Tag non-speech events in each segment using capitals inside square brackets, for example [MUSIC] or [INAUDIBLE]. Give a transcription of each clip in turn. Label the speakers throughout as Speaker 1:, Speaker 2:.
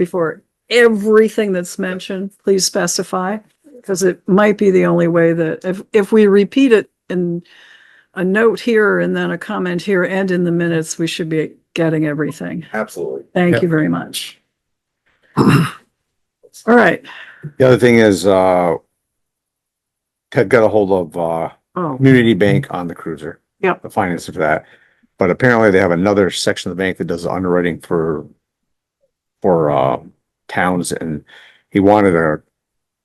Speaker 1: before everything that's mentioned, please specify, because it might be the only way that, if, if we repeat it in a note here and then a comment here and in the minutes, we should be getting everything.
Speaker 2: Absolutely.
Speaker 1: Thank you very much. All right.
Speaker 3: The other thing is, uh, Ted got a hold of, uh,
Speaker 1: Oh,
Speaker 3: Community Bank on the cruiser.
Speaker 1: Yep.
Speaker 3: The financing for that. But apparently they have another section of the bank that does underwriting for, for, uh, towns and he wanted a,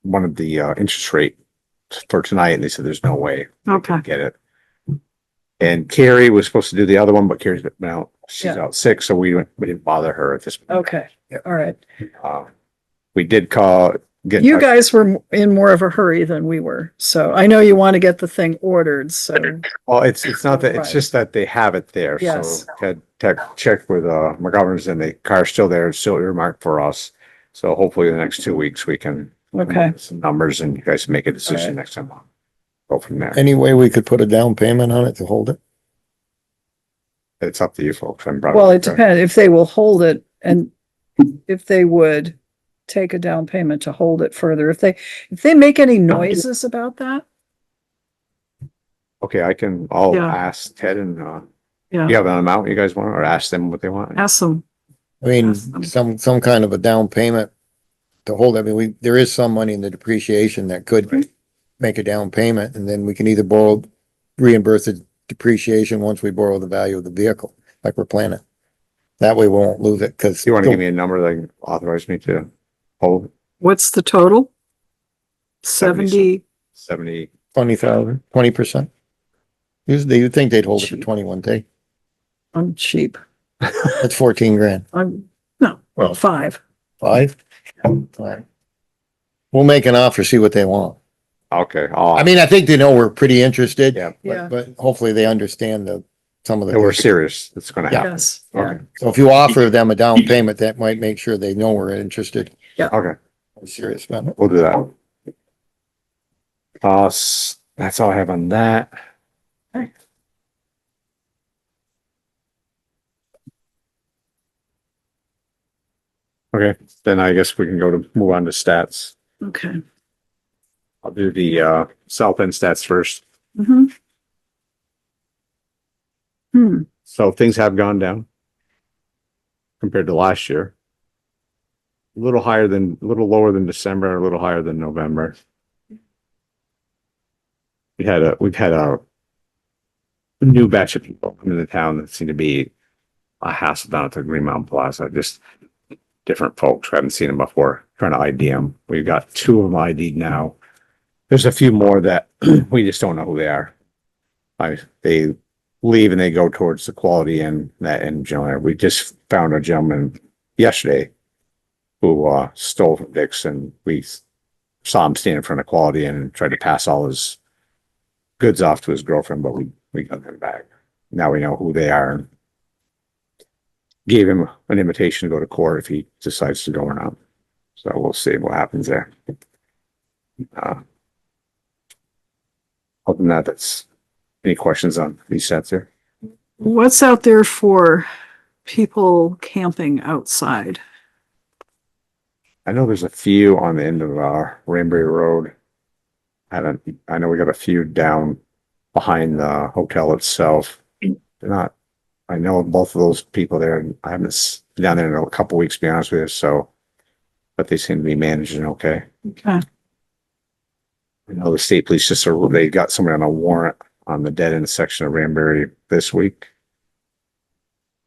Speaker 3: wanted the, uh, interest rate for tonight and they said, there's no way
Speaker 1: okay.
Speaker 3: to get it. And Carrie was supposed to do the other one, but Carrie's been out, she's
Speaker 1: Yeah.
Speaker 3: out sick, so we, went- we didn't bother her at this. point.
Speaker 1: Okay. All right.
Speaker 3: Uh, We did call, get. in
Speaker 1: You
Speaker 3: touch-
Speaker 1: guys were in more of a hurry than we were. So I know you want to get the thing ordered. So,
Speaker 3: Well, it's, it's not that, it's
Speaker 1: Right.
Speaker 3: just that they have it there. So
Speaker 1: Yes.
Speaker 3: Ted, Ted checked with, uh, McGovern's and the car's still there, it's still earmarked for us. So hopefully the next two weeks we can. come up
Speaker 1: okay.
Speaker 3: with Some numbers and you guys make a decision next time. Go from there.
Speaker 2: Any way we could put a down payment on it to hold it?
Speaker 3: It's up to you folks. I'm probably-
Speaker 1: Well, it depends if they will hold it and if they would take a down payment to hold it further. If they, if they make any noises about that,
Speaker 3: Okay, I can, I'll
Speaker 1: Yeah.
Speaker 3: ask Ted and, uh,
Speaker 1: Yeah.
Speaker 3: you have an amount you guys want or ask them what they want?
Speaker 1: ask them.
Speaker 2: I mean,
Speaker 1: Awesome.
Speaker 2: some, some kind of a down payment to hold. I mean, we, there is some money in the depreciation that could
Speaker 3: Right.
Speaker 2: make a down payment and then we can either borrow, reimburse the depreciation once we borrow the value of the vehicle, like we're planning. That way we won't lose it because.
Speaker 3: You want to give me a number that authorized me to hold
Speaker 1: What's the total?
Speaker 3: Seventy-
Speaker 1: Seventy,
Speaker 3: seventy?
Speaker 2: Twenty thousand, twenty percent. Usually you'd think they'd hold it for
Speaker 1: Cheap.
Speaker 2: twenty-one day.
Speaker 1: I'm cheap.
Speaker 2: That's fourteen grand.
Speaker 1: I'm, no,
Speaker 2: Well-
Speaker 1: five.
Speaker 2: Five? We'll make an offer, see what they want.
Speaker 3: Okay,
Speaker 2: I
Speaker 3: I'll,
Speaker 2: mean, I think they know we're pretty interested.
Speaker 3: yeah,
Speaker 1: Yeah,
Speaker 2: But hopefully they understand the, some of
Speaker 3: no, we're
Speaker 2: the,
Speaker 3: serious. It's gonna happen.
Speaker 1: yes, yeah.
Speaker 3: Okay,
Speaker 2: so if you offer them a down payment, that might make sure they know we're interested.
Speaker 3: okay.
Speaker 2: We're Serious about it.
Speaker 3: We'll do that. Uh, s- that's all I have on that. Okay, then I guess we can go to move on to stats.
Speaker 1: Okay.
Speaker 3: I'll do the uh south end stats first.
Speaker 1: Mhm. Hmm,
Speaker 3: So things have gone down compared to last year. A little higher than, a little lower than December, a little higher than November. We had a, we've had a new batch of people come into town that seem to be a hassle down at the Green Mountain Plaza, just different folks. We haven't seen them before, trying to ID them. We've got two of them ID'd now. There's a few more that [CLEARS THROAT] we just don't know who they are. I, they leave and they go towards the quality and that end generally. We just found a gentleman yesterday who uh stole from Dick's and we s- saw him standing in front of quality and tried to pass all his goods off to his girlfriend, but we we got them back. Now we know who they are. and Gave him an invitation to go to court if he decides to go or not. So we'll see what happens there. Uh, other than that, that's any questions on these sets here?
Speaker 1: what's out there for people camping outside?
Speaker 3: I know there's a few on the end of uh Ranbury Road. I don't, I know we got a few down behind the hotel itself. They're not, I know both of those people there, and I haven't s- been down there in a couple weeks, to be honest with you, so. But they seem to be managing okay.
Speaker 1: Okay,
Speaker 3: I know the state police just, are- they got somebody on a warrant on the dead end section of Ranbury this week.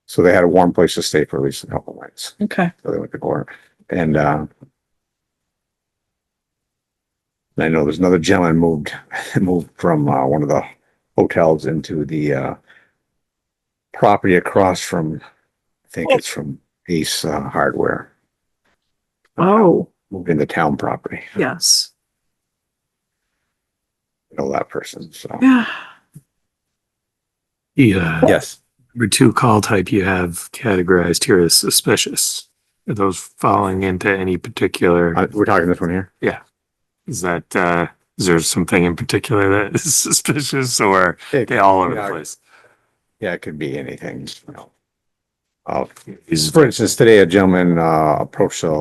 Speaker 3: So they had a warm place to stay for at least a couple nights.
Speaker 1: okay.
Speaker 3: So they went to court and, uh, I know there's another gentleman moved, [LAUGHS] moved from, uh, one of the hotels into the, uh, property across from, I think it's from Ace uh, Hardware,
Speaker 1: Oh,
Speaker 3: moved into town property.
Speaker 1: yes,
Speaker 3: I Know that person, so.
Speaker 1: yeah.
Speaker 4: Yeah,
Speaker 3: Yes.
Speaker 4: uh, number two call type you have categorized here is suspicious. Are those falling into any particular,
Speaker 3: Uh, we're talking this one here.
Speaker 4: is that, uh, is there something in particular that is [LAUGHS] suspicious or they all over the
Speaker 3: Yeah.
Speaker 4: place?
Speaker 3: Yeah, it could be anything, you know. I'll-
Speaker 4: Is
Speaker 3: For instance, today a gentleman, uh, approached a